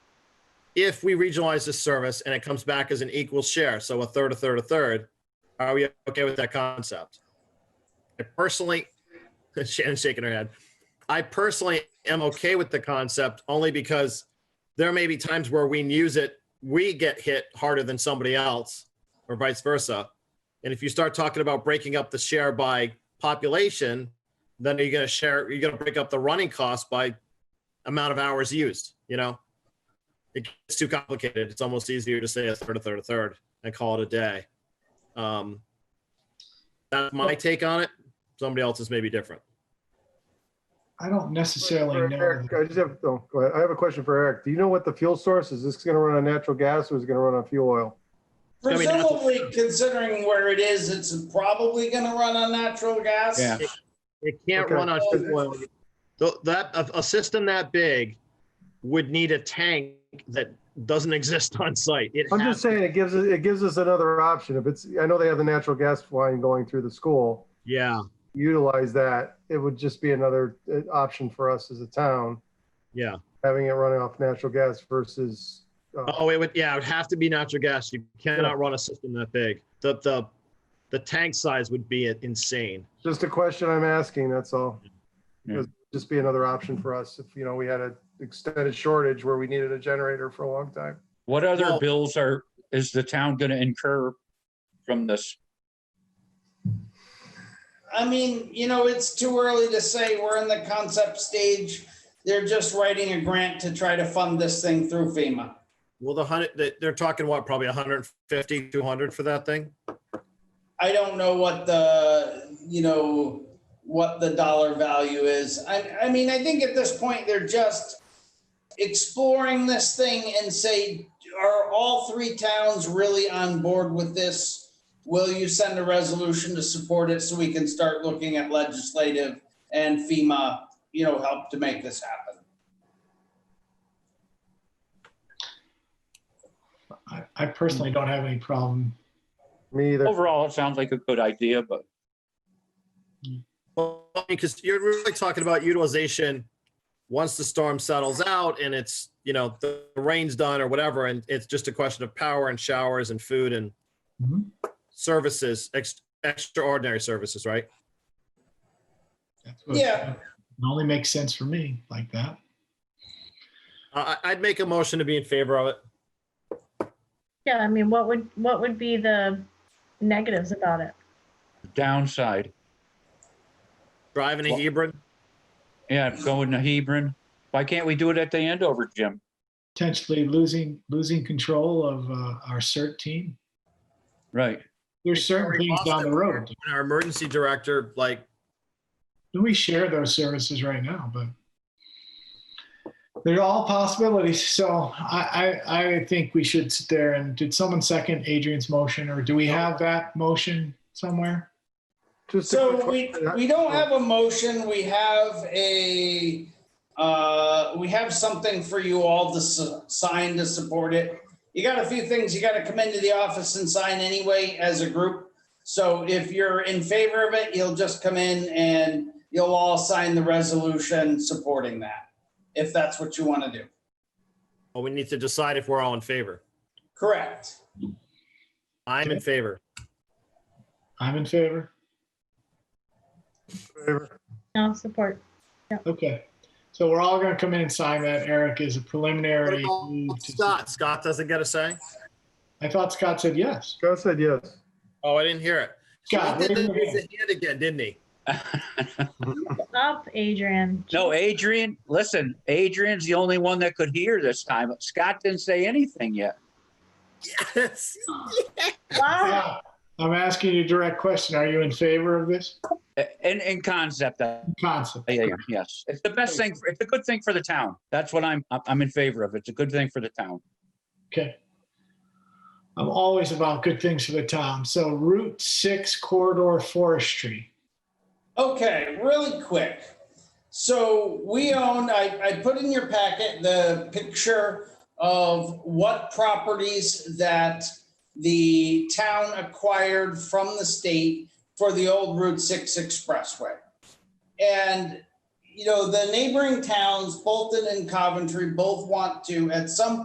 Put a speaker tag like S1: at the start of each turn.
S1: if we regionalize this service and it comes back as an equal share, so a third, a third, a third, are we okay with that concept? I personally, Shannon's shaking her head. I personally am okay with the concept only because there may be times where we use it, we get hit harder than somebody else or vice versa. And if you start talking about breaking up the share by population, then are you going to share, you're going to break up the running cost by amount of hours used, you know? It gets too complicated. It's almost easier to say a third, a third, a third and call it a day. Um, that's my take on it. Somebody else's may be different.
S2: I don't necessarily
S3: For
S2: know.
S3: Eric, I just have, oh, go ahead. I have a question for Eric. Do you know what the fuel source is? Is this going to run on natural gas or is it going to run on fuel oil?
S1: I mean, that's-
S4: Presumably, considering where it is, it's probably gonna run on natural gas.
S5: Yeah.
S1: It can't
S3: Okay.
S1: run on fuel oil. Th- That, a, a system that big would need a tank that doesn't exist on site. It
S3: I'm
S1: has-
S3: just saying it gives, us- it gives us another option. If it's, I know they have the natural gas line going through the school,
S1: Yeah,
S3: utilize that. It would just be another uh, option for us as a town,
S1: yeah.
S3: having it running off natural gas versus. uh,
S1: Oh, it would, yeah, it would have to be natural gas. You cannot run a system that big. The, the, the tank size would be insane.
S3: Just a question I'm asking, that's all.
S5: Yeah.
S3: It'd Just be another option for us if, you know, we had an extended shortage where we needed a generator for a long time.
S5: What other
S1: Well-
S5: bills are, is the town gonna incur from this?
S4: I mean, you know, it's too early to say. We're in the concept stage. They're just writing a grant to try to fund this thing through FEMA.
S1: Well, the hundred, they- they're talking what, probably 150, 200 for that thing?
S4: I don't know what the, you know, what the dollar value is. I, I mean, I think at this point, they're just exploring this thing and say, are all three towns really on board with this? Will you send a resolution to support it so we can start looking at legislative and FEMA, you know, help to make this happen?
S2: I, I personally don't have any problem.
S3: Me
S4: Oh,
S3: either.
S5: Overall, it sounds like a good idea, but
S1: Well, because you're really talking about utilization once the storm settles out and it's, you know, the rain's done or whatever, and it's just a question of power and showers and food and
S2: Mhm.
S1: services, ex- extraordinary services, right?
S2: That's what-
S4: Yeah.
S2: It only makes sense for me like that.
S1: I, I- I'd make a motion to be in favor of it.
S6: Yeah, I mean, what would, what would be the negatives about it?
S5: downside,
S1: Driving a
S5: Well-
S1: Hebron,
S5: yeah, going to Hebron. Why can't we do it at the Andover gym?
S2: Potentially losing, losing control of uh, our CERT team.
S5: Right.
S2: There's certain
S1: Victoria
S2: things down the
S1: Boston.
S2: road.
S1: our emergency director, like,
S2: We share those services right now, but they're all possibilities. So I, I, I think we should sit there and did someone second Adrian's motion or do we have that motion somewhere?
S3: Just a
S4: So
S3: quick
S4: we,
S3: question.
S4: we don't have a motion, we have a, uh, we have something for you all to s- sign to support it. You got a few things, you gotta come into the office and sign anyway as a group. So if you're in favor of it, you'll just come in and you'll all sign the resolution supporting that, if that's what you wanna do.
S1: well, we need to decide if we're all in favor.
S4: Correct.
S1: I'm in favor.
S2: I'm in favor.
S6: No support.
S2: Okay, so we're all gonna come in and sign that. Eric is a
S1: What
S2: preliminary. move
S1: about
S2: to-
S1: Scott, Scott doesn't get a say?
S2: I thought Scott said yes.
S3: Scott said yes.
S1: Oh, I didn't hear it.
S2: Scott,
S1: He
S2: raise
S1: did
S2: your
S1: raise his
S2: hand.
S1: hand again, didn't he?
S6: Up, Adrian.
S5: No, Adrian, listen, Adrian's the only one that could hear this time. Scott didn't say anything yet.
S1: Yes.
S6: Wow.
S2: Scott, I'm asking you a direct question. Are you in favor of this
S5: In, in concept, I
S2: concept?
S5: I am, yes. It's the best thing, for- it's a good thing for the town. That's what I'm, I'm in favor of. It's a good thing for the town.
S2: Okay. I'm always about good things for the town. So Route Six corridor forestry.
S4: Okay, really quick. So we own, I, I put in your packet the picture of what properties that the town acquired from the state for the old Route 6 Expressway. And, you know, the neighboring towns, Bolton and Coventry, both want to, at some